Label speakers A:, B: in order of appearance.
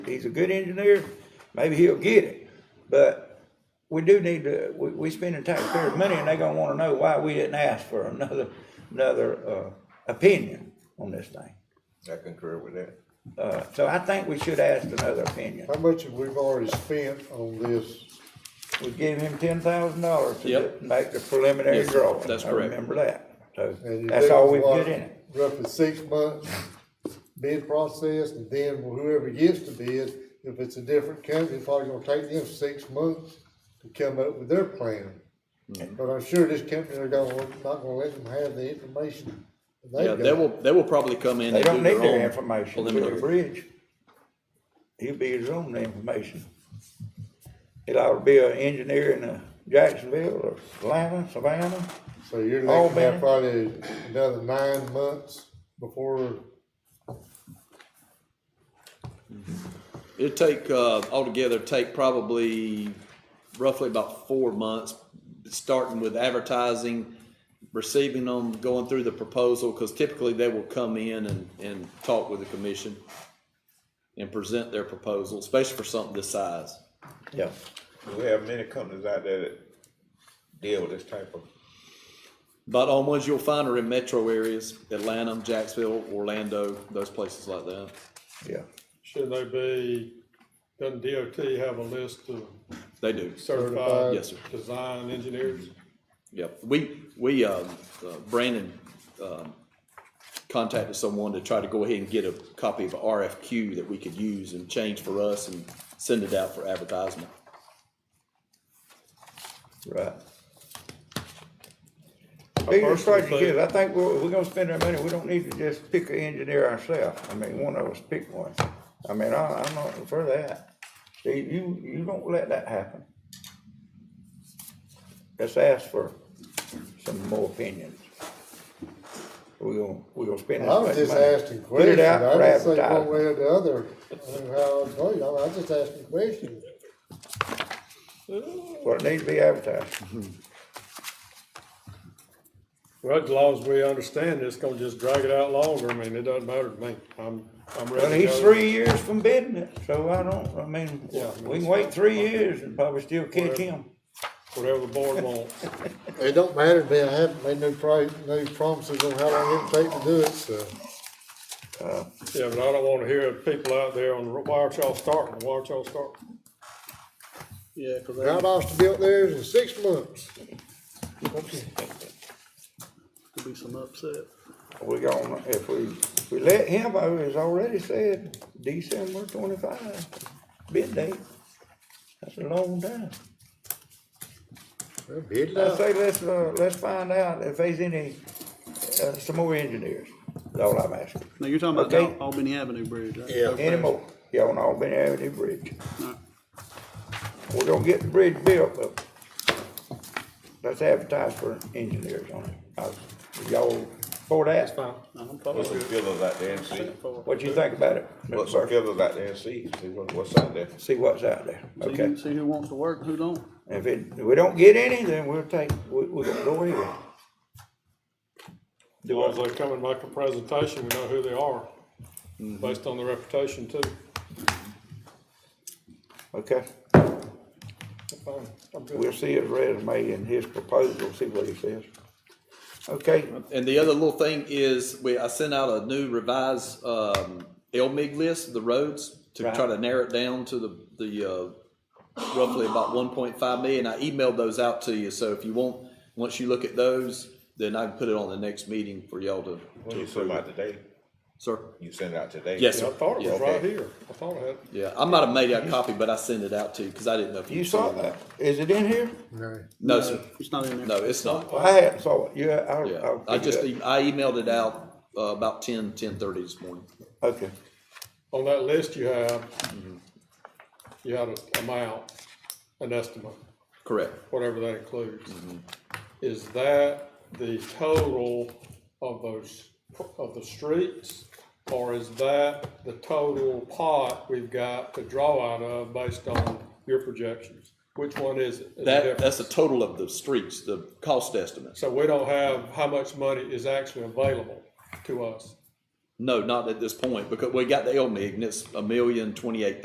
A: he's a good engineer, maybe he'll get it. But we do need to, we, we spending taxpayers' money and they gonna wanna know why we didn't ask for another, another, uh, opinion on this thing.
B: I concur with that.
A: Uh, so I think we should ask another opinion.
C: How much have we already spent on this?
A: We gave him ten thousand dollars to
D: Yep.
A: make the preliminary
D: Yes,
A: drawing.
D: that's
A: I
D: correct.
A: remember that. So
C: And you
A: that's
C: think
A: all we've
C: what,
A: got in it.
C: Roughly six months bid process, and then whoever gets the bid, if it's a different company, it's probably gonna take them six months to come up with their plan. But I'm sure this company are gonna, not gonna let them have the information. that they've
D: Yeah, they
C: got.
D: will, they will probably come in
A: They
D: and do
A: don't need
D: their
A: their
D: own
A: information for the
D: preliminary.
A: bridge. He'll be his own information. It ought to be an engineer in uh, Jacksonville or Atlanta, Savannah.
C: So you're
A: All
C: looking
A: better.
C: at probably another nine months before,
D: It'd take, uh, altogether, take probably roughly about four months, starting with advertising, receiving them, going through the proposal, because typically they will come in and, and talk with the commission and present their proposal, especially for something this size.
A: Yeah.
B: We have many companies out there that deal with this type of,
D: But all ones you'll find are in metro areas, Atlanta, Jacksonville, Orlando, those places like that.
A: Yeah.
E: Should they be, doesn't DOT have a list of
D: They do.
C: Certified.
E: certified?
D: Yes, sir.
E: Design engineers?
D: Yep, we, we, um, uh, Brandon, um, contacted someone to try to go ahead and get a copy of a RFQ that we could use and change for us and send it out for advertisement.
A: Right.
E: I
A: Biggest
E: personally
A: question is, I think we're, we're gonna spend our money, we don't need to just pick an engineer ourselves. I mean, one of us pick one. I mean, I, I'm not for that. See, you, you don't let that happen. Let's ask for some more opinions. We gonna, we gonna spend.
C: I
A: this
C: was
A: much
C: just
A: money.
C: asking
A: Put
C: questions.
A: it out
C: I
A: for
C: didn't say one
A: advertising.
C: way or the other, I mean, how I told you, I was just asking questions.
A: Well, it needs to be advertised.
E: Well, as long as we understand it's gonna just drag it out longer. I mean, it doesn't matter to me. I'm, I'm ready to go.
A: Well, he's three years from bidding it, so I don't, I mean, we can wait three years and probably still catch him.
E: Whatever the board wants.
C: It don't matter to me, I haven't made no pri- no promises on how long it'll take to do it, so.
A: Uh,
E: Yeah, but I don't wanna hear people out there on, why aren't y'all starting? Why aren't y'all starting?
D: Yeah, cause
C: Round off's built theirs in six months.
F: Could be some upset.
A: We gonna, if we, we let him, I was already said, December twenty-five, bid date. That's a long time.
C: Well, Bid it
A: I
C: out.
A: say, let's, uh, let's find out if there's any, uh, some more engineers, that's all I'm asking.
F: Now, you're talking about
A: Okay.
F: the Albany Avenue Bridge, right?
C: Yeah.
A: Any more, y'all on Albany Avenue Bridge. We're gonna get the bridge built, but let's advertise for engineers on it. I- Y'all for that?
F: I'm
B: put some
F: probably
B: fillers out there and see,
F: good for
A: What you think about it?
B: put some fillers out there and see, see what, what's out there.
A: See what's out there,
F: it. So you
A: okay?
F: can see who wants to work and who don't.
A: If it, if we don't get any, then we'll take, we, we're gonna go ahead.
E: As long as they come and make a presentation, we know who they are, based on their reputation too.
A: Okay,
E: Fine, I'm good.
A: we'll see his resume and his proposal, see what he says. Okay,
D: And the other little thing is, we, I sent out a new revised, um, LMIG list, of the roads, to
A: Right.
D: try to narrow it down to the, the, uh, roughly about one point five million. I emailed those out to you, so if you want, once you look at those, then I can put it on the next meeting for y'all to,
B: When you send them out today,
D: sir.
B: you send it out today?
D: Yes,
E: Yeah, I
D: sir.
E: thought it was
B: Yeah.
E: right here. I thought I had.
D: Yeah, I might have made out a copy, but I sent it out to you because I didn't know if you,
A: you saw that, is it in here?
C: No.
D: No, sir.
F: It's not in there.
D: No, it's not.
A: I hadn't saw it, Oh, yeah, I,
D: Yeah,
A: I'll.
D: I just
A: pick it
D: e- I emailed it out uh, about 10, 10.30 this morning.
A: up. Okay.
E: on that list you have, you had an amount, an estimate,
D: Correct.
E: whatever that includes. Is that the total of those, of the streets? Or is that the total pot we've got to draw out of based on your projections? Which one is it? Is it?
D: That
E: different?
D: that's the total of the streets, the cost estimates.
E: So we don't have how much money is actually available to us?
D: No, not at this point because we got the LMIG and it's a million twenty eight